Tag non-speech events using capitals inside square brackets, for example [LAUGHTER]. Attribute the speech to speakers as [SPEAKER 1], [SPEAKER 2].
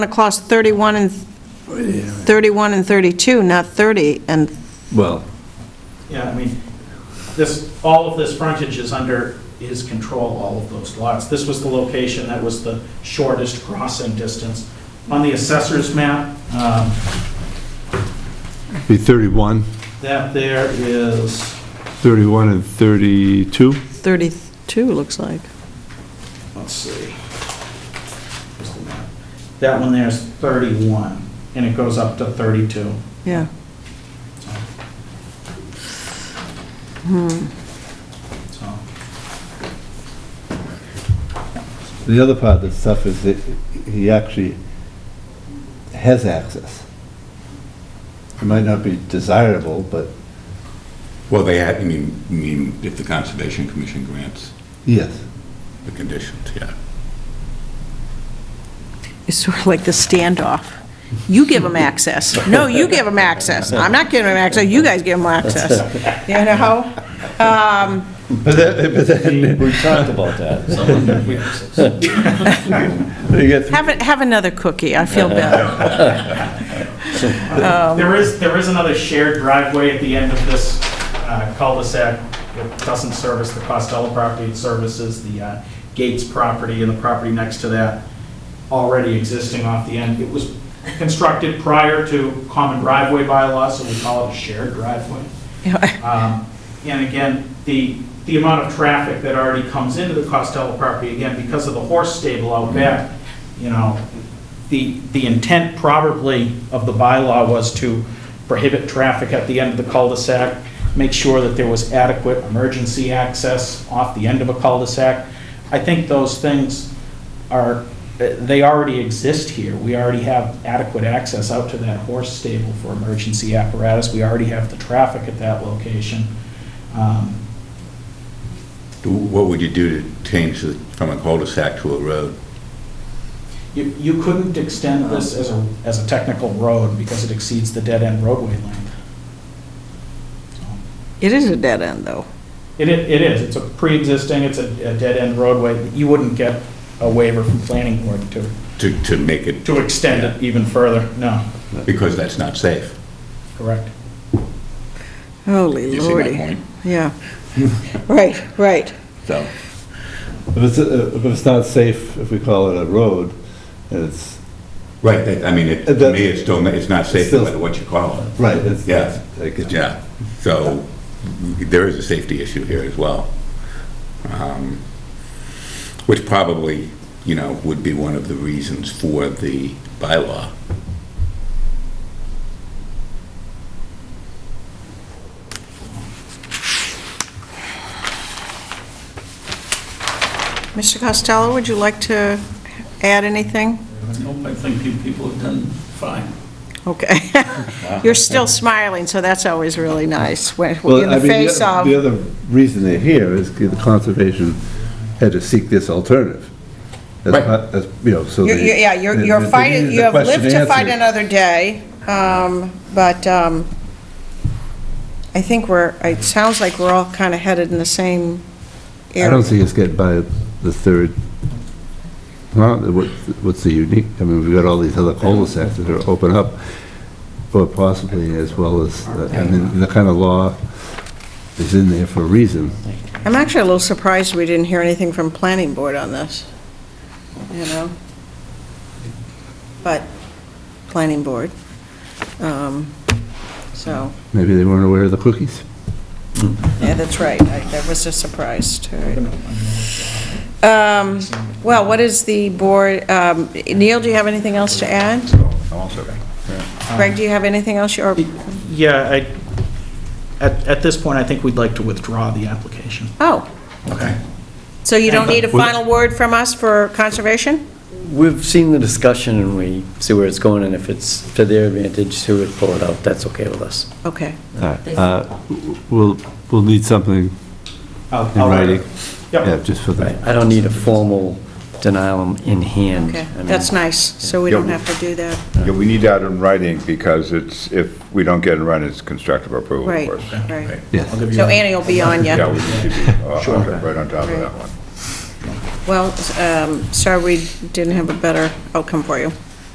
[SPEAKER 1] across 31 and, 31 and 32, not 30, and,
[SPEAKER 2] Well,
[SPEAKER 3] Yeah, I mean, this, all of this frontage is under his control, all of those lots. This was the location that was the shortest crossing distance. On the assessor's map, um,
[SPEAKER 2] be 31,
[SPEAKER 3] that there is,
[SPEAKER 2] 31 and 32?
[SPEAKER 1] 32 looks like.
[SPEAKER 3] let's see. Where's the map? That one there's 31, and it goes up to 32.
[SPEAKER 1] Yeah.
[SPEAKER 3] So,
[SPEAKER 4] The other part of the stuff is that he actually has access. It might not be desirable, but
[SPEAKER 5] Well, they had, I mean, I mean, if the Conservation Commission grants
[SPEAKER 4] yes.
[SPEAKER 5] the conditions, yeah.
[SPEAKER 1] It's sort of like the standoff. You give them access. No, you give them access. I'm not giving them access, you guys give them access. You know? Um,
[SPEAKER 4] But then, but then,
[SPEAKER 6] We talked about that. Someone that we-
[SPEAKER 4] [LAUGHS] you get
[SPEAKER 1] Have, a- have another cookie, I feel better.
[SPEAKER 3] There is, there is another shared driveway at the end of this uh, cul-de-sac. It doesn't service the Costello property, it services the uh, Gates property and the property next to that already existing off the end. It was constructed prior to common driveway bylaw, so we call it a shared driveway. Um, And again, the, the amount of traffic that already comes into the Costello property, again, because of the horse stable out back, you know, the, the intent probably of the bylaw was to prohibit traffic at the end of the cul-de-sac, make sure that there was adequate emergency access off the end of a cul-de-sac. I think those things are, they already exist here. We already have adequate access out to that horse stable for emergency apparatus. We already have the traffic at that location. Um,
[SPEAKER 5] Do- What would you do to change the- from a cul-de-sac to a road?
[SPEAKER 3] You, you couldn't extend this as a, as a technical road because it exceeds the dead-end roadway length.
[SPEAKER 1] [LAUGHS] It is a dead end, though.
[SPEAKER 3] It, i- it is, it's a pre-existing, it's a, a dead-end roadway. You wouldn't get a waiver from planning board to,
[SPEAKER 5] To, to make it,
[SPEAKER 3] to extend it even further, no,
[SPEAKER 5] because that's not safe.
[SPEAKER 3] correct.
[SPEAKER 1] Holy
[SPEAKER 5] You see my
[SPEAKER 1] lordy.
[SPEAKER 5] point?
[SPEAKER 1] Yeah. Right, right.
[SPEAKER 5] So,
[SPEAKER 4] If it's, uh, if it's not safe, if we call it a road, and it's,
[SPEAKER 5] right, that- I mean, it, to me, it's still, it's not safe no
[SPEAKER 4] Still-
[SPEAKER 5] matter what you call it.
[SPEAKER 4] right, it's.
[SPEAKER 5] Yeah.
[SPEAKER 4] I get you.
[SPEAKER 5] Yeah, so there is a safety issue here as well. um, Which probably, you know, would be one of the reasons for the bylaw.
[SPEAKER 1] Mr. Costello, would you like to add anything?
[SPEAKER 6] Nope, I think you people have done fine.
[SPEAKER 1] Okay. [LAUGHS] You're still smiling, so that's always really nice, when
[SPEAKER 4] Well,
[SPEAKER 1] in
[SPEAKER 4] I
[SPEAKER 1] the
[SPEAKER 4] mean,
[SPEAKER 1] face
[SPEAKER 4] the-
[SPEAKER 1] of,
[SPEAKER 4] The other reason they're here is 'cause the conservation had to seek this alternative. As
[SPEAKER 5] Right.
[SPEAKER 4] part- As, you know, so.
[SPEAKER 1] You're-
[SPEAKER 4] they-
[SPEAKER 1] you're- yeah, you're
[SPEAKER 4] they-
[SPEAKER 1] you're
[SPEAKER 4] they
[SPEAKER 1] fighting,
[SPEAKER 4] needed
[SPEAKER 1] you
[SPEAKER 4] the
[SPEAKER 1] have
[SPEAKER 4] question
[SPEAKER 1] lived to fight
[SPEAKER 4] answered.
[SPEAKER 1] another day, um, but um, I think we're, it sounds like we're all kind of headed in the same
[SPEAKER 4] I don't
[SPEAKER 1] area.
[SPEAKER 4] see us getting by the third. Well, what- what's the unique, I mean, we've got all these other cul-de-sacs that are open up, or possibly as well as, I mean, the kind of law is in there for a reason.
[SPEAKER 1] I'm actually a little surprised we didn't hear anything from Planning Board on this, you know? But, Planning Board, um, so.
[SPEAKER 4] Maybe they weren't aware of the cookies.
[SPEAKER 1] Yeah, that's right. I that was a surprise. All right. Um, Well, what is the board, um, Neil, do you have anything else to add? Greg, do you have anything else, you- or,
[SPEAKER 3] Yeah, I, at, at this point, I think we'd like to withdraw the application.
[SPEAKER 1] oh,
[SPEAKER 5] Okay.
[SPEAKER 1] so you don't need a final word from us for conservation?
[SPEAKER 7] We've seen the discussion and we see where it's going, and if it's to their advantage to pull it out, that's okay with us.
[SPEAKER 1] Okay.
[SPEAKER 4] Uh, We'll, we'll need something
[SPEAKER 3] I'll-
[SPEAKER 4] in
[SPEAKER 3] I'll-
[SPEAKER 4] writing.
[SPEAKER 3] Yep.
[SPEAKER 4] Yeah, just for
[SPEAKER 7] Right,
[SPEAKER 4] that.
[SPEAKER 7] I don't need a formal denial in hand.
[SPEAKER 1] Okay,
[SPEAKER 7] I mean,
[SPEAKER 1] that's nice, so we don't have to do that.
[SPEAKER 8] Yeah, we need that in writing because it's, if we don't get it in writing, it's constructive approval, of
[SPEAKER 1] Right,
[SPEAKER 8] course.
[SPEAKER 1] right.
[SPEAKER 4] Yes.
[SPEAKER 1] So Annie will be on
[SPEAKER 8] Yeah,
[SPEAKER 1] you.
[SPEAKER 8] we need to be uh, on- right on top of that one.
[SPEAKER 1] Well, um, sorry we didn't have a better outcome for you.